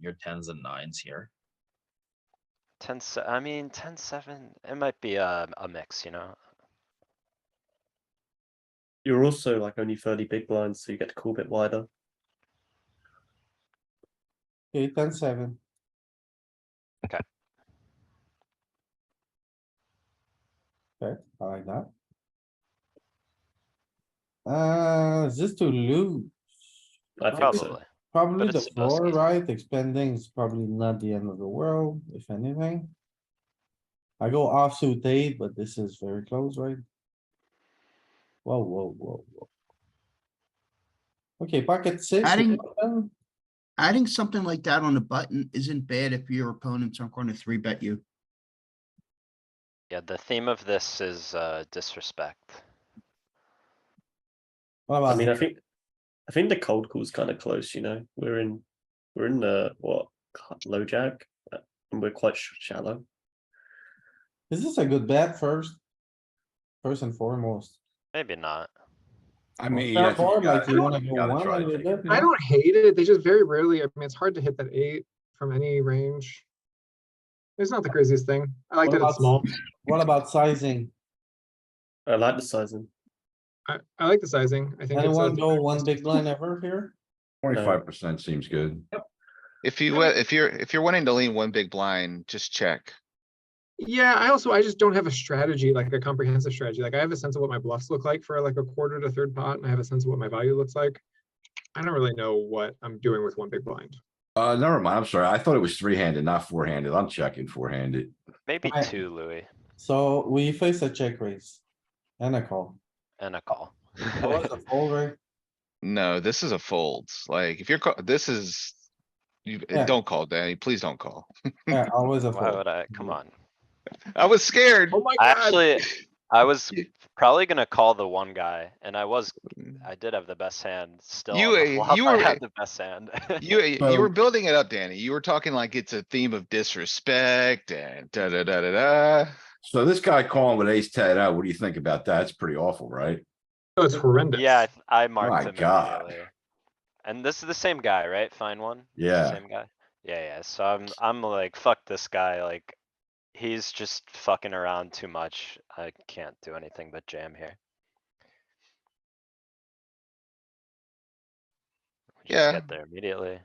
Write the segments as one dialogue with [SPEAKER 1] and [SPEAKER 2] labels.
[SPEAKER 1] your tens and nines here.
[SPEAKER 2] Ten, se- I mean, ten, seven, it might be a, a mix, you know?
[SPEAKER 3] You're also like only fairly big blinds, so you get to call a bit wider.
[SPEAKER 4] Eight, ten, seven.
[SPEAKER 2] Okay.
[SPEAKER 4] Okay, I like that. Uh, is this to lose?
[SPEAKER 3] I think so.
[SPEAKER 2] Probably.
[SPEAKER 4] Probably
[SPEAKER 2] But
[SPEAKER 4] the
[SPEAKER 2] it's supposed to
[SPEAKER 4] floor,
[SPEAKER 2] be.
[SPEAKER 4] right? Expanding is probably not the end of the world, if anything. I go offsuit eight, but this is very close, right? Whoa, whoa, whoa, whoa. Okay, pocket six.
[SPEAKER 5] Adding-
[SPEAKER 4] open.
[SPEAKER 5] Adding something like that on the button isn't bad if your opponents aren't going to three bet you.
[SPEAKER 2] Yeah, the theme of this is, uh, disrespect.
[SPEAKER 4] What
[SPEAKER 3] I
[SPEAKER 4] about
[SPEAKER 3] mean, I think, I think the cold call's kind of close. You know, we're in, we're in the what ca- low jack, uh, and we're quite sh- shallow.
[SPEAKER 4] Is this a good bet first? First and foremost.
[SPEAKER 2] Maybe not.
[SPEAKER 6] I
[SPEAKER 4] Well,
[SPEAKER 6] mean,
[SPEAKER 4] fair
[SPEAKER 6] yeah, I think uh,
[SPEAKER 4] board,
[SPEAKER 6] you
[SPEAKER 4] like,
[SPEAKER 6] gotta-
[SPEAKER 4] you wanna
[SPEAKER 6] you
[SPEAKER 4] go
[SPEAKER 6] gotta
[SPEAKER 4] one
[SPEAKER 6] try to
[SPEAKER 4] a little
[SPEAKER 6] take it.
[SPEAKER 4] bit,
[SPEAKER 7] I don't hate it. They just very rarely, I mean, it's hard to hit that eight from any range. It's not the craziest thing. I like
[SPEAKER 4] What
[SPEAKER 7] that
[SPEAKER 4] about-
[SPEAKER 7] it's small.
[SPEAKER 4] What about sizing?
[SPEAKER 3] I like the sizing.
[SPEAKER 7] I, I like the sizing. I think. it's a
[SPEAKER 4] Anyone go
[SPEAKER 7] different-
[SPEAKER 4] one big line ever here?
[SPEAKER 6] Twenty-five percent seems good.
[SPEAKER 8] If you, wa- if you're, if you're wanting to lean one big blind, just check.
[SPEAKER 7] Yeah, I also, I just don't have a strategy, like a comprehensive strategy. Like I have a sense of what my bluffs look like for like a quarter to third pot and I have a sense of what my value looks like. I don't really know what I'm doing with one big blind.
[SPEAKER 6] Uh, never mind, I'm sorry. I thought it was three-handed, not four-handed. I'm checking four-handed.
[SPEAKER 2] Maybe
[SPEAKER 4] I-
[SPEAKER 2] two, Louis,
[SPEAKER 4] So we face a check raise. And a call.
[SPEAKER 2] and a call.
[SPEAKER 4] That was a fold, right?
[SPEAKER 8] No, this is a fold. Like, if you're, ca- this is, you, eh,
[SPEAKER 4] Yeah.
[SPEAKER 8] don't call, Danny, please don't call.
[SPEAKER 4] Yeah, always a
[SPEAKER 2] Why
[SPEAKER 4] fold.
[SPEAKER 2] would I, come on.
[SPEAKER 8] I was scared.
[SPEAKER 7] Oh my
[SPEAKER 2] I
[SPEAKER 7] god,
[SPEAKER 2] actually, I was
[SPEAKER 8] You-
[SPEAKER 2] probably gonna call the one guy, and I was, I did have the best hand still.
[SPEAKER 8] You,
[SPEAKER 2] on the
[SPEAKER 8] uh,
[SPEAKER 2] flop,
[SPEAKER 8] you
[SPEAKER 2] I
[SPEAKER 8] were-
[SPEAKER 2] had the best hand.
[SPEAKER 8] You, you were building it up, Danny. You were talking like it's a theme of disrespect and da, da, da, da, da.
[SPEAKER 6] So this guy calling with ace ten out, what do you think about that? It's pretty awful, right?
[SPEAKER 7] Oh, it's horrendous.
[SPEAKER 2] Yeah, I th- I marked
[SPEAKER 6] My
[SPEAKER 2] him
[SPEAKER 6] God.
[SPEAKER 2] immediately. And this is the same guy, right? Fine one?
[SPEAKER 6] Yeah.
[SPEAKER 2] Same guy? Yeah, yeah, so I'm, I'm like, fuck this guy, like, he's just fucking around too much. I can't do anything but jam here. We just
[SPEAKER 8] Yeah.
[SPEAKER 2] Get there immediately.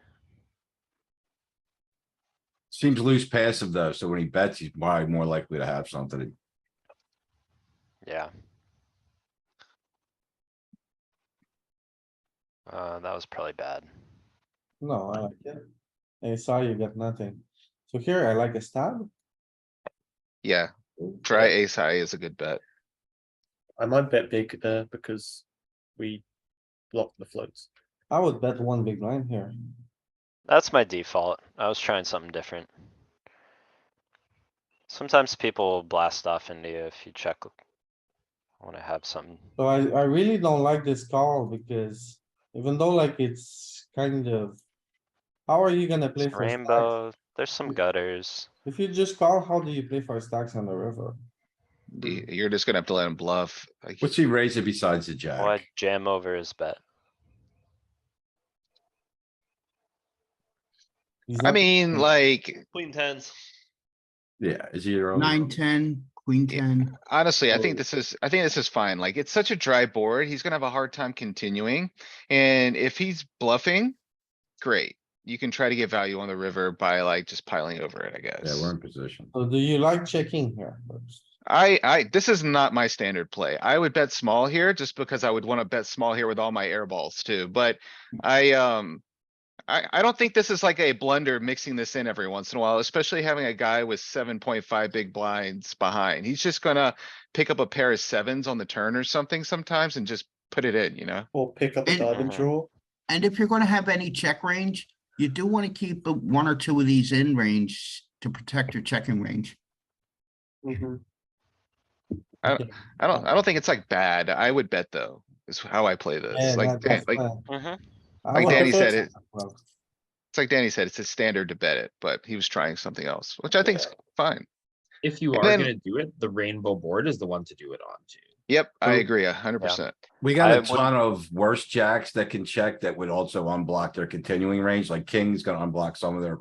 [SPEAKER 6] Seems loose passive though, so when he bets, he's probably more likely to have something.
[SPEAKER 2] Yeah. Uh, that was probably bad.
[SPEAKER 4] No, I like it. I saw you got nothing. So here I like a stab.
[SPEAKER 8] Yeah, try ace high is a good bet.
[SPEAKER 3] I might bet big there because we block the floats.
[SPEAKER 4] I would bet one big line here.
[SPEAKER 2] That's my default. I was trying something different. Sometimes people will blast off into you if you check. I wanna have something.
[SPEAKER 4] So I, I really don't like this call because even though like it's kind of. How are you gonna play
[SPEAKER 2] It's
[SPEAKER 4] for stacks?
[SPEAKER 2] Rainbow, there's some gutters.
[SPEAKER 4] If you just call, how do you play for stacks on the river?
[SPEAKER 8] You- You're just gonna have to let him bluff. Like,
[SPEAKER 6] What's he raising besides the jack?
[SPEAKER 2] Why jam over his bet?
[SPEAKER 4] He's
[SPEAKER 8] I
[SPEAKER 4] not-
[SPEAKER 8] mean, like,
[SPEAKER 2] Queen tens.
[SPEAKER 6] Yeah, is he your own?
[SPEAKER 5] Nine, ten, queen, ten.
[SPEAKER 8] Honestly, I think
[SPEAKER 3] Oh.
[SPEAKER 8] this is, I think this is fine. Like, it's such a dry board. He's gonna have a hard time continuing. And if he's bluffing, great. You can try to get value on the river by like just piling over it, I
[SPEAKER 6] Yeah, we're
[SPEAKER 8] guess.
[SPEAKER 6] in position.
[SPEAKER 4] So do you like checking here? first?
[SPEAKER 8] I, I, this is not my standard play. I would bet small here just because I would wanna bet small here with all my air balls too, but I, um. I, I don't think this is like a blunder mixing this in every once in a while, especially having a guy with seven point five big blinds behind. He's just gonna. Pick up a pair of sevens on the turn or something sometimes and just put it in, you know?
[SPEAKER 3] Or pick up a
[SPEAKER 5] And-
[SPEAKER 3] diamond draw.
[SPEAKER 5] And if you're going to have any check range, you do want to keep uh, one or two of these in range to protect your checking range.
[SPEAKER 8] I don't, I don't think it's like bad. I would bet though, is how I play
[SPEAKER 4] Yeah,
[SPEAKER 8] this. Like,
[SPEAKER 4] that-
[SPEAKER 8] Dan-
[SPEAKER 4] that's
[SPEAKER 8] like,
[SPEAKER 4] fine.
[SPEAKER 2] Mm-hmm.
[SPEAKER 4] I
[SPEAKER 8] like
[SPEAKER 4] would
[SPEAKER 8] Danny
[SPEAKER 4] prefer
[SPEAKER 8] said, it-
[SPEAKER 4] check, well.
[SPEAKER 8] it's like Danny said, it's a standard to bet it, but he was trying something else, which I think's fine.
[SPEAKER 1] If you
[SPEAKER 8] And
[SPEAKER 1] are
[SPEAKER 8] then-
[SPEAKER 1] gonna do it, the rainbow board is the one to do it on to.
[SPEAKER 8] Yep, I
[SPEAKER 6] Well,
[SPEAKER 8] agree a hundred
[SPEAKER 2] yeah.
[SPEAKER 8] percent.
[SPEAKER 6] We got
[SPEAKER 2] I
[SPEAKER 6] a
[SPEAKER 2] would-
[SPEAKER 6] ton of worse jacks that can check that would also unblock their continuing range, like king's gonna unblock some of their